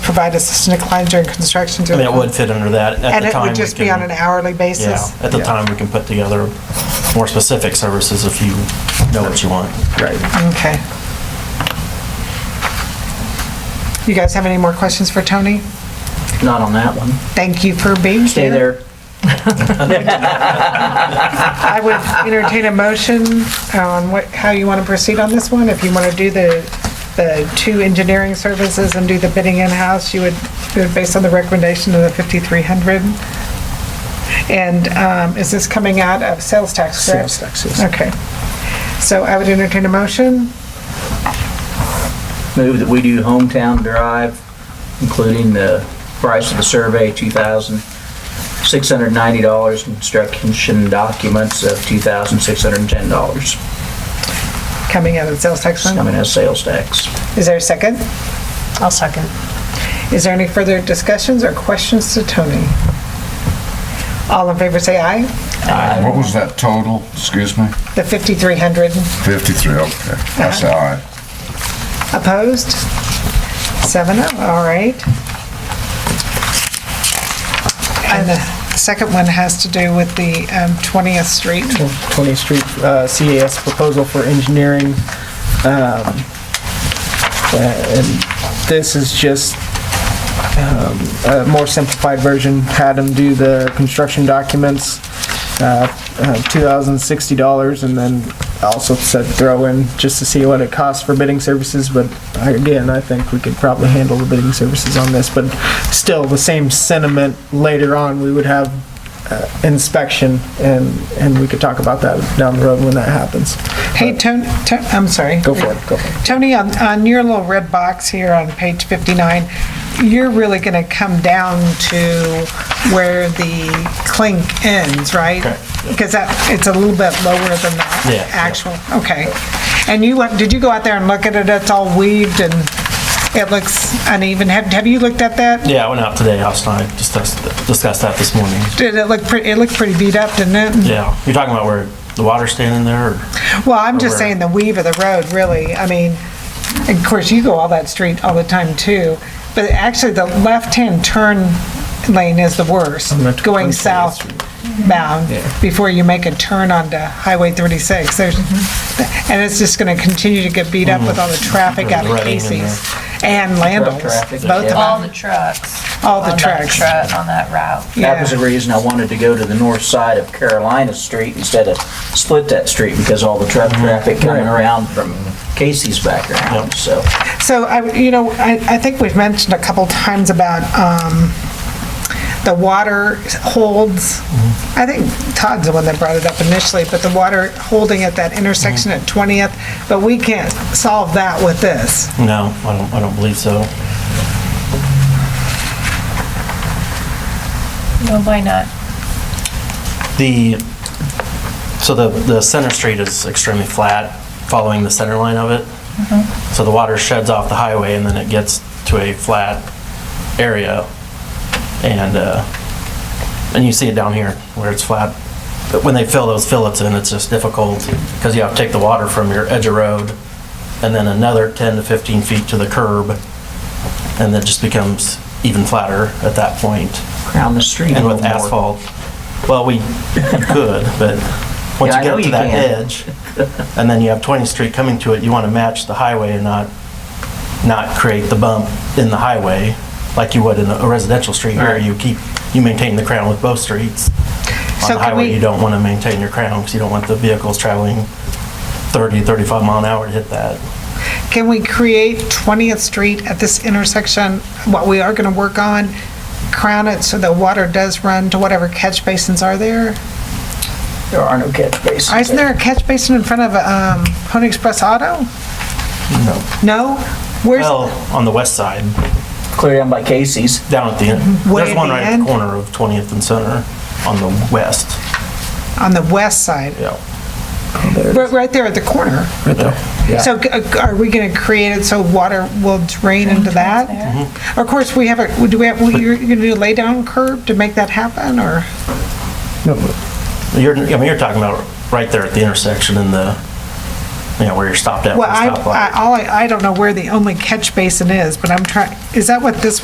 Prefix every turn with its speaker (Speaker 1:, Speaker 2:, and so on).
Speaker 1: provide assistant decline during construction to.
Speaker 2: I mean, it would fit under that. At
Speaker 1: And
Speaker 2: the
Speaker 1: it
Speaker 2: time,
Speaker 1: would
Speaker 2: we
Speaker 1: just be
Speaker 2: can-
Speaker 1: on an hourly
Speaker 2: Yeah,
Speaker 1: basis?
Speaker 2: at the
Speaker 3: Yeah.
Speaker 2: time, we can put together more specific services if you know what you want.
Speaker 3: Right.
Speaker 1: Okay. You guys have any more questions for Tony?
Speaker 4: Not on that one.
Speaker 1: Thank you for being here.
Speaker 4: Stay there.
Speaker 1: I would entertain a motion on what, how you want to proceed on this one. If you want to do the, the two engineering services and do the bidding in-house, you would, do it based on the recommendation of the 5,300. And um, is this coming out of sales tax, correct?
Speaker 3: Sales taxes.
Speaker 1: Okay. So I would entertain a motion.
Speaker 4: Move that we do hometown drive, including the price of the survey, two thousand six hundred ninety dollars, construction documents of two thousand six hundred and ten dollars.
Speaker 1: Coming out of the sales tax
Speaker 4: It's
Speaker 1: fund.
Speaker 4: coming as sales tax.
Speaker 1: Is there a second?
Speaker 5: I'll second.
Speaker 1: Is there any further discussions or questions to Tony? All in favor, say aye.
Speaker 6: What was that total? Excuse me?
Speaker 1: The 5,300.
Speaker 6: 53, okay. That's all right.
Speaker 1: Opposed? Seven oh, all right. And the second one has to do with the um, 20th Street.
Speaker 3: 20th Street uh, CAS proposal for engineering. Um, uh, And this is just um, a more simplified version, had them do the construction documents, uh, uh, $2,060, and then also said throw in just to see what it costs for bidding services, but I- again, I think we could probably handle the bidding services on this, but still, the same sentiment later on, we would have uh, inspection, and, and we could talk about that down the road when that happens.
Speaker 1: Hey, Tony, I'm sorry.
Speaker 3: Go for it, go for it.
Speaker 1: Tony, on, on your little red box here on page 59, you're really going to come down to where the clink ends, right?
Speaker 2: Correct,
Speaker 1: Because that, it's a little bit lower than
Speaker 2: Yeah, yeah.
Speaker 1: the actual, okay. And you, look- did you go out there and look at it? It's all weaved and it looks uneven. Have, have you looked at that?
Speaker 2: Yeah, I went out today, Austin, and I discussed, discussed that this morning.
Speaker 1: Did it look, pretty? it looked pretty beat up, didn't it?
Speaker 2: Yeah, you're talking about where the water's standing there, or?
Speaker 1: Well, I'm just
Speaker 2: Or-
Speaker 1: saying the weave of the road, really. I mean, and of course, you go all that street all the time too, but actually the left-hand turn lane is the worst,
Speaker 3: On the tw-
Speaker 1: going
Speaker 3: 20th
Speaker 1: southbound before you make a turn onto Highway 36. There's, and it's just going to continue to get beat up with all the traffic out of
Speaker 2: Right in
Speaker 1: Casey's and Landals,
Speaker 4: traffic,
Speaker 1: both of
Speaker 4: yeah.
Speaker 5: All
Speaker 1: them.
Speaker 5: the trucks.
Speaker 1: All the
Speaker 5: on that
Speaker 1: trucks.
Speaker 5: tru- On that route.
Speaker 4: That was the
Speaker 1: Yeah,
Speaker 4: reason I wanted to go to the north side of Carolina Street instead of split that street, because all the truck
Speaker 2: Mm-hmm.
Speaker 4: traffic coming around from Casey's background, so.
Speaker 1: so I, would- you know, I, I think we've mentioned a couple times about, um, the water holds, I think Todd's the one that brought it up initially, but the water holding at that intersection at 20th, but we can't solve that with this.
Speaker 2: No, I don't, I don't believe so.
Speaker 5: No, why not?
Speaker 2: The, so the, the center street is extremely flat, following the center line of it. So the water sheds off the highway and then it gets to a flat area. And, uh, and you see it down here where it's flat. But when they fill those fillets in, it's just difficult because you have to take the water from your edge of road and then another 10 to 15 feet to the curb. And that just becomes even flatter at that point.
Speaker 4: Around the street.
Speaker 2: And with
Speaker 4: a little more.
Speaker 2: asphalt, well, we could, but once
Speaker 4: Yeah,
Speaker 2: you get
Speaker 4: I know
Speaker 2: up to
Speaker 4: you
Speaker 2: that
Speaker 4: can.
Speaker 2: edge, and then you have 20th Street coming to it, you want to match the highway and not, not create the bump in the highway like you would in a residential street where
Speaker 4: Right.
Speaker 2: you keep, you maintain the crown with both streets.
Speaker 1: So
Speaker 2: On the
Speaker 1: can we-
Speaker 2: highway, you don't want to maintain your crown because you don't want the vehicles traveling 30, 35 mile an hour to hit that.
Speaker 1: Can we create 20th Street at this intersection, what we are going to work on, crown it so the water does run to whatever catch basins are there?
Speaker 4: There are no catch basins.
Speaker 1: Isn't there a catch basin in front of um, Pony Express Auto?
Speaker 2: No.
Speaker 1: No? Where's,
Speaker 2: Well, on the west side,
Speaker 4: Clear down by Casey's.
Speaker 2: down at the end,
Speaker 1: Way
Speaker 2: there's
Speaker 1: at
Speaker 2: one
Speaker 1: the
Speaker 2: right at
Speaker 1: end?
Speaker 2: the corner of 20th and Center on the west,
Speaker 1: on the west side,
Speaker 2: yeah.
Speaker 1: right right there at the corner. So g- uh, are we going to create it so water will drain into that? Mm-hmm. Of course, we have a, do we have, well, you're going to do a lay-down curb to make that happen, or?
Speaker 2: You're, I mean, you're talking about right there at the intersection in the, you know, where you're stopped at. for
Speaker 1: Well, I,
Speaker 2: the stoplight.
Speaker 1: I, all I I don't know where the only catch basin is, but I'm trying, is that what this